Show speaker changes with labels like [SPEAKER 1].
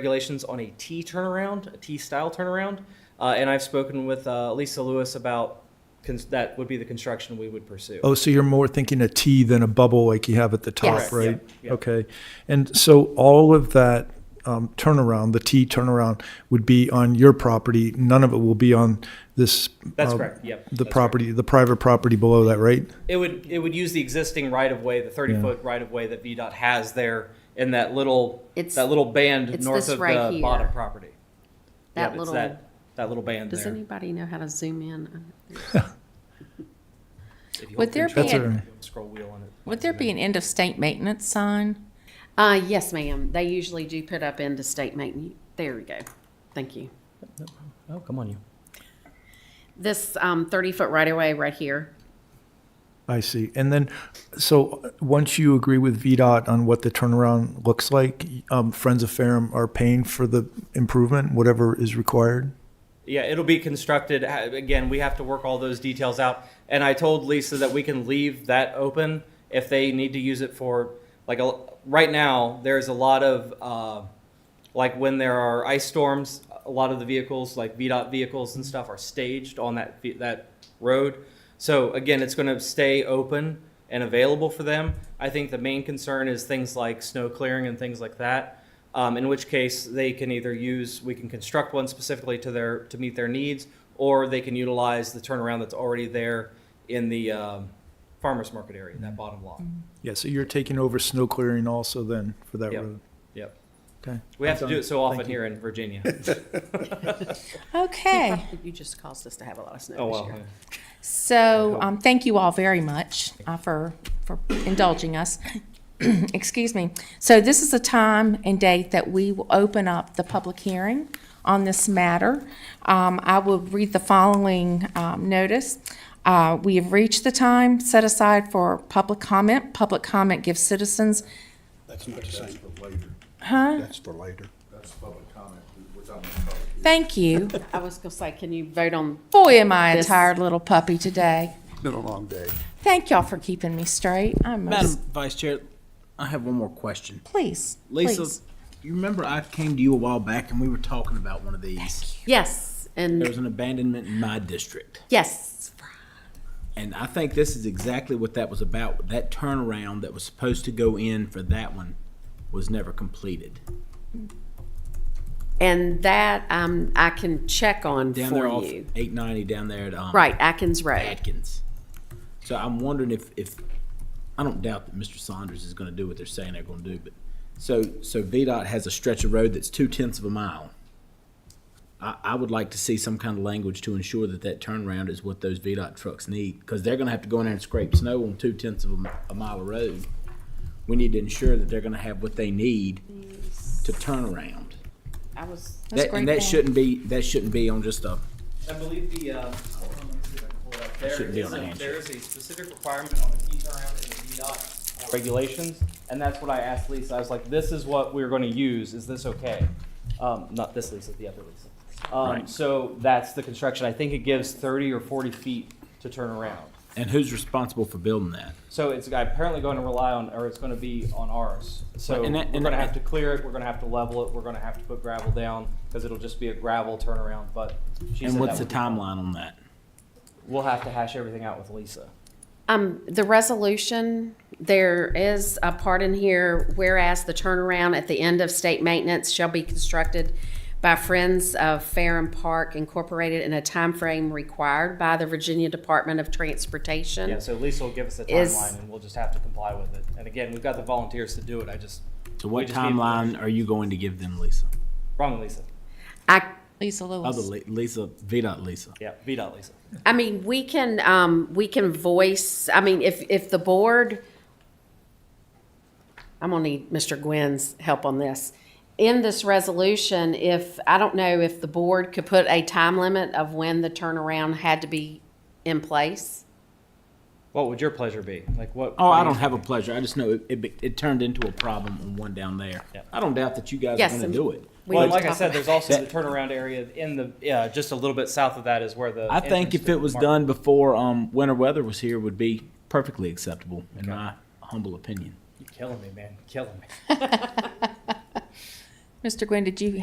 [SPEAKER 1] regulations on a T turnaround, a T style turnaround. Uh, and I've spoken with uh, Lisa Lewis about cons- that would be the construction we would pursue.
[SPEAKER 2] Oh, so you're more thinking a T than a bubble like you have at the
[SPEAKER 1] Yes.
[SPEAKER 2] top,
[SPEAKER 1] Correct,
[SPEAKER 2] right?
[SPEAKER 1] yeah, yeah.
[SPEAKER 2] Okay. And so all of that um, turnaround, the T turnaround, would be on your property. None of it will be on this.
[SPEAKER 1] That's
[SPEAKER 2] uh,
[SPEAKER 1] correct, yep.
[SPEAKER 2] The
[SPEAKER 1] that's correct.
[SPEAKER 2] property, the private property below that, right?
[SPEAKER 1] It would, it would use the existing right of way, the thirty
[SPEAKER 2] Yeah.
[SPEAKER 1] foot right of way that VDOT has there in that little,
[SPEAKER 3] It's-
[SPEAKER 1] that little band
[SPEAKER 3] it's
[SPEAKER 1] north
[SPEAKER 3] this
[SPEAKER 1] of
[SPEAKER 3] right
[SPEAKER 1] the
[SPEAKER 3] here.
[SPEAKER 1] bottom property. Yep,
[SPEAKER 3] That
[SPEAKER 1] it's
[SPEAKER 3] little,
[SPEAKER 1] That that little band
[SPEAKER 3] does
[SPEAKER 1] there.
[SPEAKER 3] anybody know how to zoom in?
[SPEAKER 1] If you
[SPEAKER 4] Would
[SPEAKER 1] hold
[SPEAKER 4] there
[SPEAKER 1] control,
[SPEAKER 4] be
[SPEAKER 2] a-
[SPEAKER 1] Scroll wheel on it.
[SPEAKER 4] Would there be an end of state maintenance sign?
[SPEAKER 3] Uh, yes, ma'am. They usually do put up into state maintenance. There we go. Thank you.
[SPEAKER 1] Oh, come on, you.
[SPEAKER 3] This, um, thirty-foot right-of-way right here.
[SPEAKER 2] I see. And then, so uh, once you agree with VDOT on what the turnaround looks like, um, Friends of Ferrum are paying for the improvement, whatever is required?
[SPEAKER 1] Yeah, it'll be constructed. Ha- Again, we have to work all those details out. And I told Lisa that we can leave that open if they need to use it for, like, a l- right now, there's a lot of, uh, like, when there are ice storms, a lot of the vehicles, like VDOT vehicles and stuff, are staged on that, ve- that road. So again, it's going to stay open and available for them. I think the main concern is things like snow clearing and things like that. Um, in which case, they can either use we can construct one specifically to their to meet their needs, or they can utilize the turnaround that's already there in the um, farmers market area, that bottom lot.
[SPEAKER 2] Yeah, so you're taking over snow clearing also then for that
[SPEAKER 1] Yep.
[SPEAKER 2] road?
[SPEAKER 1] Yep.
[SPEAKER 2] Okay.
[SPEAKER 1] We have to do it so often
[SPEAKER 2] Thank you.
[SPEAKER 1] here in Virginia.
[SPEAKER 4] Okay,
[SPEAKER 3] You just caused us to have a lot of
[SPEAKER 1] oh
[SPEAKER 3] snow this
[SPEAKER 1] wow.
[SPEAKER 3] year.
[SPEAKER 4] so um, thank you all very much uh, for, for indulging us. Excuse me. So this is the time and date that we will open up the public hearing on this matter. Um, I will read the following um, notice. Uh, We have reached the time set aside for public comment. Public comment gives citizens
[SPEAKER 5] That's not the same. for later. That's for later. That's public comment. We're talking about public.
[SPEAKER 4] Thank you.
[SPEAKER 3] I was gonna say, can you vote on,
[SPEAKER 4] Boy, am I a
[SPEAKER 3] This-
[SPEAKER 4] tired little puppy today.
[SPEAKER 5] It's been a long day.
[SPEAKER 4] Thank y'all for keeping me straight. I'm
[SPEAKER 6] Madam Vice Chair, I have one more question.
[SPEAKER 4] please,
[SPEAKER 6] Lisa,
[SPEAKER 4] please.
[SPEAKER 6] you remember I came to you a while back and we were talking about one of these.
[SPEAKER 3] yes,
[SPEAKER 6] There
[SPEAKER 3] and
[SPEAKER 6] was an abandonment in my district.
[SPEAKER 3] yes,
[SPEAKER 6] And I think this is exactly what that was about. That turnaround that was supposed to go in for that one was never completed.
[SPEAKER 3] and that, um, I can check on
[SPEAKER 6] Down there
[SPEAKER 3] for
[SPEAKER 6] off
[SPEAKER 3] you.
[SPEAKER 6] eight ninety down there at um,
[SPEAKER 3] Right, Atkins Road.
[SPEAKER 6] Atkins. So I'm wondering if, if, I don't doubt that Mr. Saunders is gonna do what they're saying they're gonna do, but, so, so VDOT has a stretch of road that's two tenths of a mile. I, I would like to see some kind of language to ensure that that turnaround is what those VDOT trucks need, cause they're gonna have to go in there and scrape snow on two tenths of a, mi- a mile of road. We need to ensure that they're gonna have what they need to turn around.
[SPEAKER 3] I was,
[SPEAKER 4] That's a
[SPEAKER 6] That-
[SPEAKER 4] great
[SPEAKER 6] And that
[SPEAKER 4] point.
[SPEAKER 6] shouldn't be, that shouldn't be on just a,
[SPEAKER 1] I believe the, um, hold on, let me see if I can pull it up. There
[SPEAKER 6] Shouldn't be
[SPEAKER 1] is
[SPEAKER 6] on a
[SPEAKER 1] a,
[SPEAKER 6] handshake.
[SPEAKER 1] there is a specific requirement on the T turnaround in the VDOT uh, regulations, and that's what I asked Lisa. I was like, this is what we're gonna use, is this okay? Um, not this Lisa, the other Lisa. Um,
[SPEAKER 6] Right.
[SPEAKER 1] so that's the construction. I think it gives thirty or forty feet to turn around.
[SPEAKER 6] and who's responsible for building that?
[SPEAKER 1] So it's apparently going to rely on, or it's gonna be on ours. So
[SPEAKER 6] Right,
[SPEAKER 1] we're
[SPEAKER 6] and that- and
[SPEAKER 1] gonna
[SPEAKER 6] that-
[SPEAKER 1] have to clear it, we're gonna have to level it, we're gonna have to put gravel down, because it'll just be a gravel turnaround, but she said
[SPEAKER 6] And
[SPEAKER 1] that
[SPEAKER 6] what's the
[SPEAKER 1] would be fine.
[SPEAKER 6] timeline on that?
[SPEAKER 1] We'll have to hash everything out with Lisa.
[SPEAKER 3] Um, the resolution, there is a part in here, whereas the turnaround at the end of state maintenance shall be constructed by Friends of Farren Park Incorporated in a time frame required by the Virginia Department of Transportation.
[SPEAKER 1] Yeah, so Lisa will give us a
[SPEAKER 3] Is-
[SPEAKER 1] timeline and we'll just have to comply with it. And again, we've got the volunteers to do it. I just,
[SPEAKER 6] So
[SPEAKER 1] We
[SPEAKER 6] what
[SPEAKER 1] just need-
[SPEAKER 6] timeline are you going to give them, Lisa?
[SPEAKER 1] wrong Lisa.
[SPEAKER 3] I,
[SPEAKER 4] Lisa Lewis.
[SPEAKER 6] Other Li- Lisa, VDOT Lisa.
[SPEAKER 1] Yeah, VDOT Lisa.
[SPEAKER 3] I mean, we can, um, we can voice, I mean, if, if the board, I'm gonna need Mr. Gwynn's help on this. In this resolution, if, I don't know if the board could put a time limit of when the turnaround had to be in place.
[SPEAKER 1] What would your pleasure be? Like what?
[SPEAKER 6] Oh,
[SPEAKER 1] what
[SPEAKER 6] I
[SPEAKER 1] do you-
[SPEAKER 6] don't have a pleasure. I just know it, it, be- it turned into a problem on one down there.
[SPEAKER 1] Yep.
[SPEAKER 6] I don't doubt that you guys
[SPEAKER 3] Yes,
[SPEAKER 6] are going
[SPEAKER 3] and-
[SPEAKER 6] to do it.
[SPEAKER 3] We
[SPEAKER 1] Well,
[SPEAKER 3] need to
[SPEAKER 1] like I
[SPEAKER 3] talk
[SPEAKER 1] said,
[SPEAKER 3] about-
[SPEAKER 1] there's also the
[SPEAKER 6] That-
[SPEAKER 1] turnaround area in the, yeah, just a little bit south of that is where the.
[SPEAKER 6] I think if it was done before um, winter weather was here, would be perfectly acceptable in my humble opinion.
[SPEAKER 1] You're killing me, man. Killing me.
[SPEAKER 4] Mr. Gwynn, did you